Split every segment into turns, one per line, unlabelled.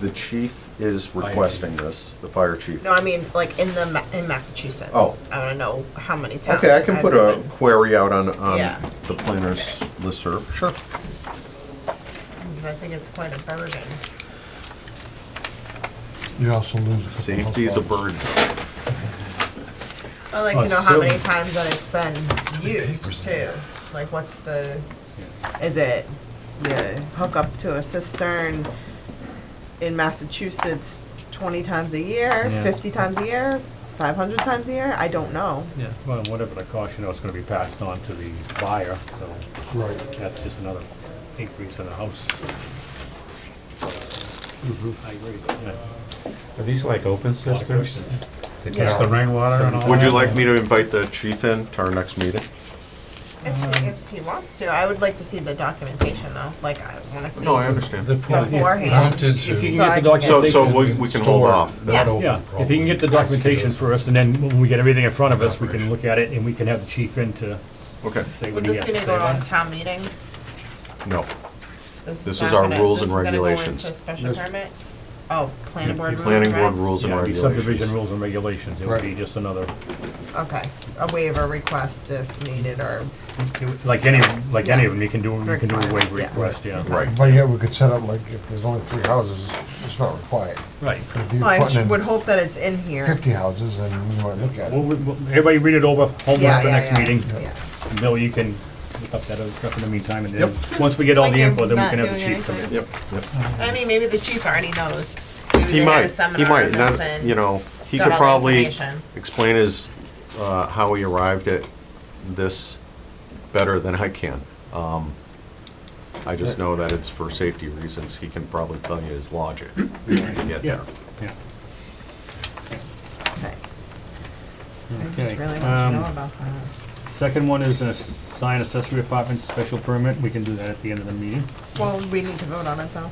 the chief is requesting this, the fire chief.
No, I mean, like in the, Ma- in Massachusetts.
Oh.
I don't know how many towns.
Okay, I can
have
put a
been-
query out on, on
Yeah.
the planner's listserv. Sure.
'cause I think it's quite a burden.
You also lose. a couple
Safety is a
households.
burden.
I'd like to
Oh,
know how
so-
many times that it's been used too. Like what's the, is it the hook up to a cistern in Massachusetts twenty times a year,
Yeah.
fifty times a year, five hundred times a year? I don't know.
Yeah, well, whatever the cost, you know, it's gonna be passed on to the buyer, so
Right.
that's just another increase in the house. I agree, Mm-hmm. yeah.
Are these like
A
open
lot of
systems?
questions.
They
Yeah.
Just the
test
rainwater and all
Would you
that?
like me to invite the chief in to our next meeting?
If, if he wants to, I would like to see the documentation though, like I wanna see.
No, I understand.
They're probably
Beforehand.
wanted
If you can
to.
So I
get the
can-
So,
documentation.
so we, we can hold off.
Yeah.
Not open.
Yeah, if you can get the
probably.
documentation for us, and then when we get everything in front of us, we can look at it, and we can have the chief in to
Okay,
say
Would
what he
this
has to
gonna
say.
go on
about
a
it.
town meeting?
no. This is
not
our
gonna-
rules
this
and
is gonna go
regulations.
into special permit? Oh, planning board rules
Planning
and
board
regs?
rules and
Yeah, it'd be subdivision
regulations.
rules and regulations, it would be just another,
Okay, a waiver request if needed or,
like any, like any
Yeah.
of them, you can do, you can do a waiver
Requirement, yeah.
request, yeah.
Right.
But yeah, we could set up like if there's only three houses, it's not required.
Right.
But if you're
I
putting
sh-
in
would hope that it's in here.
Fifty houses and we might look at
Well,
it.
we- well, everybody read it over, homework
Yeah,
for
yeah,
next
yeah,
meeting.
yeah.
Bill, you can look up that other stuff in the meantime, and then, once we get all the info, then we can have the chief come in.
Yep, yep.
I mean, maybe the chief already knows. Maybe
He
they had a
might, he
seminar on
might,
this
not,
and-
you know, he
got
could
all the
probably
information.
explain his, uh, how he arrived at this better than I can. Um, I just know that it's for safety reasons, he can probably tell you his logic to get there.
Yeah, yeah.
Okay. I just
Okay,
really want
um,
to know about that.
Second one is a sign accessory apartment special permit, we can do that at the end of the meeting.
Well, we need to vote on it though.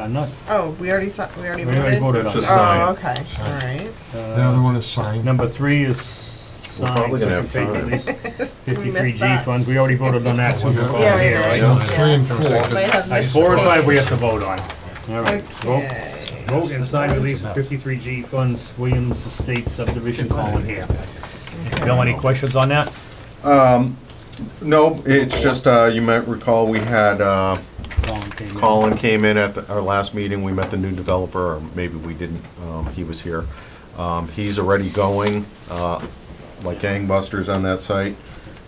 Uh, not,
Oh, we already saw, we already
we already
voted?
voted on
Just
it.
sign.
Oh, okay, all right.
The other one is signed.
Number three is sign,
probably gonna
second
have
page
time.
release, fiftifty G
that.
funds, we already voted on that, so we're
Yeah,
all
we
here,
did.
right?
So
Yeah.
Three and four.
Might
All
have
right,
missed
Four and
one.
five we have to vote on. All right, vote,
Okay.
vote and sign release fifty-three G funds, Williams Estate subdivision, Colin here. Bill, any questions on that?
No, it's just, uh, you might recall, we had, uh,
Colin came in.
Colin came in at the- our last meeting, we met the new developer, or maybe we didn't, um, he was here. Um, He's already going, uh, like gangbusters on that site.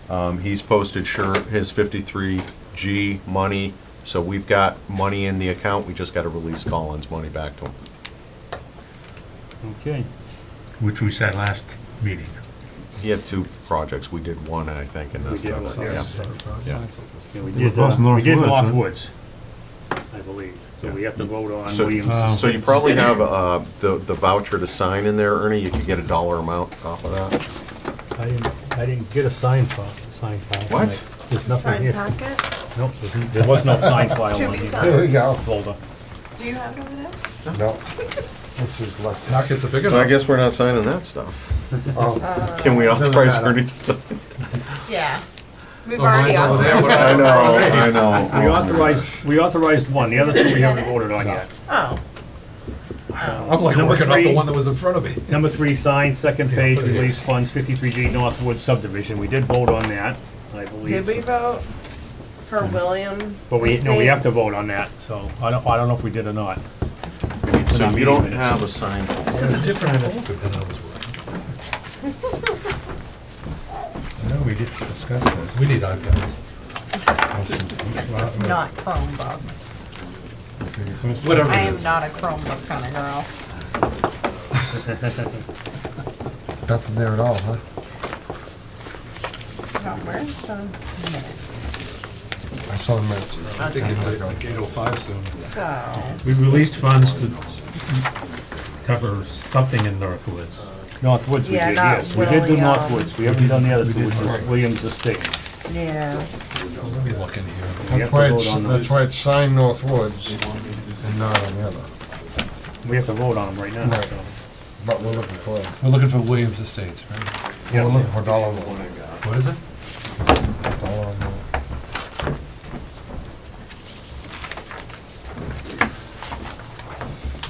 Um, He's posted sure, his 53G money, so we've got money in the account, we just gotta release Colin's money back to him.
Okay,
which we said last meeting.
He had two projects, we did one, I think, and that's,
We did
that's,
one,
yeah. Yeah.
yeah, we
It was
did, uh,
North
we did
Woods,
North
huh?
Woods, I believe, so we have to vote on
So-
Uh,
Williams.
So you probably have uh, the the voucher to sign in there, Ernie, you could get a dollar amount off of that.
I didn't, I didn't get a sign file, sign file.
What?
There's
Sign packet?
Nope, there's- there was no sign file
To
on
be
the
There we
signed.
go.
folder.
Do you have it over there?
No. This is less.
Pockets are big
So I
enough.
guess we're not signing that stuff.
Oh,
Can we
Doesn't
authorize
matter.
Ernie to sign?
Yeah. We've
Oh, mine's
already
over there.
authorized.
I know, I
We
know.
authorized, we authorized one, the other two we haven't voted on yet.
Oh,
I'm like
Number
working off the
three.
one that was in front of me.
Number three, sign, second page,
put it here.
release funds, fifty-three G Northwood subdivision, we did vote on that, I believe.
did we vote for William?
Mm-hmm. But we, no, we have to
Estates?
vote on that, so I don't, I don't know if we did or not.
So
Not
you don't
meeting
have a sign.
This is a different folder than I was working.
No, we did discuss this.
We need iPads.
Not Chromebooks.
Whatever
I
it
am
is.
not a Chromebook kind of girl.
nothing there at all, huh?
No, where's the minutes?
I saw the minutes.
I think it's like eight oh five soon.
So,
We released funds to cover something in Northwoods.
Northwoods we
Yeah,
did,
not
yes, we did do
William.
Northwoods, we haven't done the other two, which was Williams Estate.
yeah,
Let me look in here.
We have
That's
to
why
vote
it's,
on
that's
those.
why it's signed North Woods and not on the other.
We have to vote on them right now,
Right.
so.
But we're looking for,
We're looking for Williams Estates, right?
we're looking for dollar.
What is it?